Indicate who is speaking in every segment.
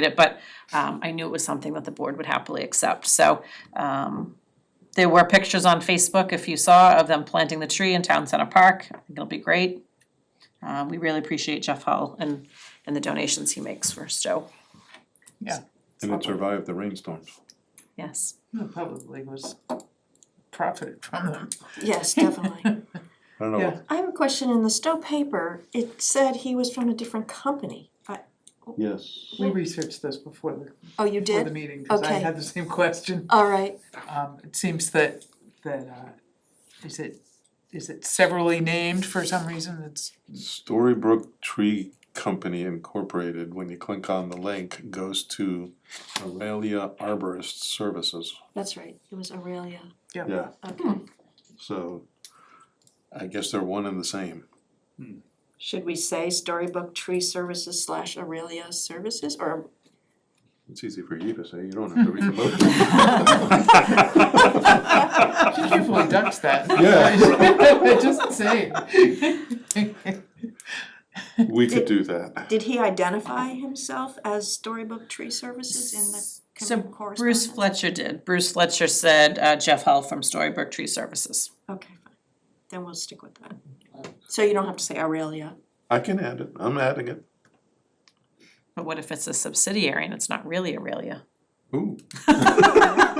Speaker 1: made it, but um I knew it was something that the board would happily accept, so um there were pictures on Facebook, if you saw, of them planting the tree in Town Center Park, I think it'll be great. Uh, we really appreciate Jeff Hull and and the donations he makes for Stowe,
Speaker 2: And it survived the rainstorms.
Speaker 1: yes.
Speaker 3: It Probably was profited from them.
Speaker 4: Yes, definitely.
Speaker 2: I don't
Speaker 3: Yeah.
Speaker 2: know,
Speaker 4: I have a question, in the Stowe paper, it said he was from a different company. I-
Speaker 2: yes,
Speaker 3: We researched this before the,
Speaker 4: Oh, you
Speaker 3: before the
Speaker 4: did?
Speaker 3: meeting, because I
Speaker 4: Okay.
Speaker 3: had the same question.
Speaker 4: All right,
Speaker 3: Um, it seems that, that, uh, is it, is it severally named for some reason? It's,
Speaker 2: Storybrook Tree Company Incorporated, when you click on the link, goes to Aurelia Arborist Services.
Speaker 4: that's right, it was Aurelia,
Speaker 3: yeah,
Speaker 2: Yeah,
Speaker 4: okay.
Speaker 2: so I guess they're one and the same.
Speaker 4: Should we say Storybook Tree Services slash Aurelia Services, or?
Speaker 2: It's easy for you to say, you don't have to read the book.
Speaker 3: she carefully ducks that.
Speaker 2: Yeah.
Speaker 3: I just say.
Speaker 2: We could do that.
Speaker 4: Did he identify himself as Storybook Tree Services in the
Speaker 1: So
Speaker 4: com- correspondence?
Speaker 1: Bruce Fletcher did, Bruce Fletcher said uh Jeff Hull from Storybook Tree Services.
Speaker 4: Okay, fine, then we'll stick with that. So you don't have to say Aurelia.
Speaker 2: I can add it, I'm adding it.
Speaker 1: But what if it's a subsidiary and it's not really Aurelia?
Speaker 2: Ooh,
Speaker 3: Let's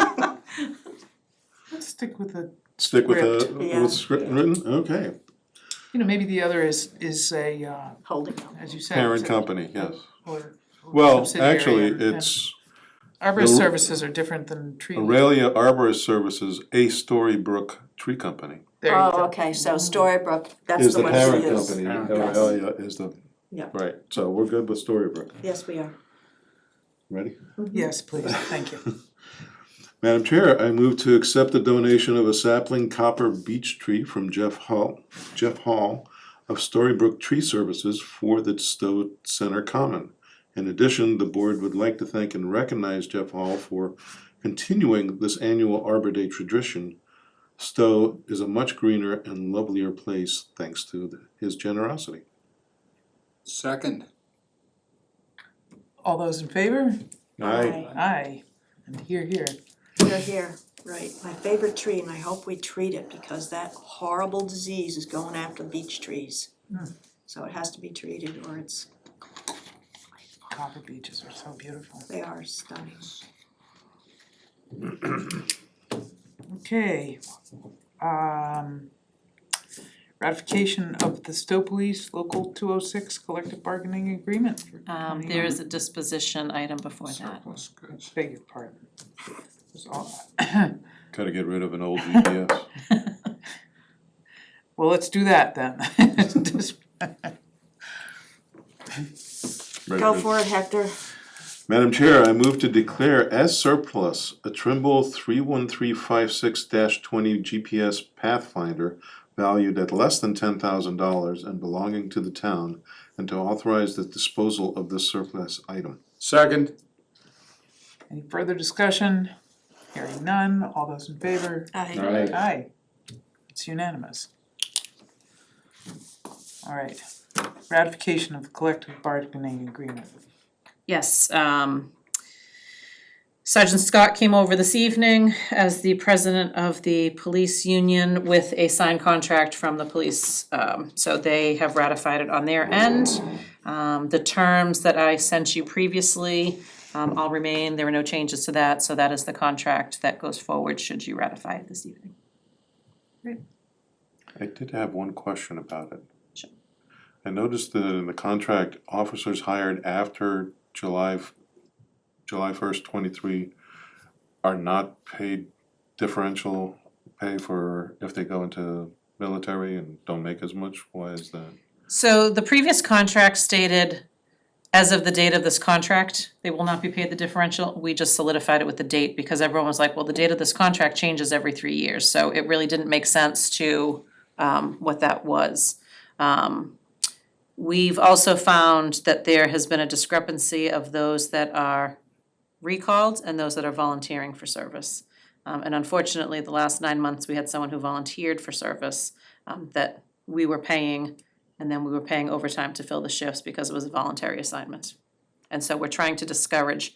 Speaker 3: stick with the,
Speaker 2: stick with the,
Speaker 3: Script,
Speaker 4: yeah.
Speaker 2: with script written, okay.
Speaker 3: you know, maybe the other is, is a, uh,
Speaker 4: Holding company.
Speaker 3: as you said.
Speaker 2: Parent
Speaker 3: it's a-
Speaker 2: company, yes.
Speaker 3: or- or
Speaker 2: Well,
Speaker 3: subsidiary
Speaker 2: actually,
Speaker 3: or- yeah.
Speaker 2: it's the-
Speaker 3: Arborist services are different than tree.
Speaker 2: Aurelia Arborist Services, a Storybrook Tree Company.
Speaker 3: There you go.
Speaker 4: Oh, okay, so Storybook, that's
Speaker 2: Is
Speaker 4: the
Speaker 2: the
Speaker 4: one she is.
Speaker 2: parent company,
Speaker 3: Parent
Speaker 2: Aurelia is the,
Speaker 4: Yeah.
Speaker 2: right, so we're good with Storybrook,
Speaker 4: Yes, we are.
Speaker 2: ready?
Speaker 3: Yes, please, thank you.
Speaker 2: Madam Chair, I move to accept the donation of a sapling copper beech tree from Jeff Hall, Jeff Hall of Storybrook Tree Services for the Stowe Center Common. In addition, the board would like to thank and recognize Jeff Hall for continuing this annual Arbor Day tradition. Stowe is a much greener and lovelier place thanks to the- his generosity.
Speaker 5: Second.
Speaker 3: All those in favor?
Speaker 2: I
Speaker 3: Aye, and here, here.
Speaker 4: They're here, right, my favorite tree, and I hope we treat it, because that horrible disease is going after beech trees. So it has to be treated, or it's,
Speaker 3: Copper beaches are so beautiful.
Speaker 4: they are stunning.
Speaker 3: Okay. Um, ratification of the Stowe Police Local two oh six collective bargaining agreement for
Speaker 1: Um
Speaker 3: county-
Speaker 1: there is a disposition item before that.
Speaker 5: Surplus goods.
Speaker 3: Beg your pardon. It's all-
Speaker 2: Gotta get rid of an old GPS.
Speaker 3: Well, let's do that then.
Speaker 4: Go for it, Hector.
Speaker 2: Madam Chair, I move to declare as surplus a Trimble three one three five six twenty GPS Pathfinder valued at less than ten thousand dollars and belonging to the town, and to authorize the disposal of this surplus item.
Speaker 5: Second.
Speaker 3: Any further discussion? Hearing none, all those in favor?
Speaker 4: I
Speaker 3: Aye, it's unanimous. All right, ratification of the collective bargaining agreement.
Speaker 1: Yes, um Sergeant Scott came over this evening as the president of the police union with a signed contract from the police. Um so they have ratified it on their end. Um the terms that I sent you previously um all remain, there were no changes to that, so that is the contract that goes forward should you ratify it this evening.
Speaker 2: I did have one question about it.
Speaker 1: Sure.
Speaker 2: I noticed that in the contract, officers hired after July, f- July first twenty-three are not paid differential pay for if they go into military and don't make as much, why is that?
Speaker 1: So the previous contract stated, as of the date of this contract, they will not be paid the differential. We just solidified it with the date because everyone was like, well, the date of this contract changes every three years. So it really didn't make sense to um what that was. Um we've also found that there has been a discrepancy of those that are recalled and those that are volunteering for service. Um and unfortunately, the last nine months, we had someone who volunteered for service um that we were paying and then we were paying overtime to fill the shifts because it was a voluntary assignment. And so we're trying to discourage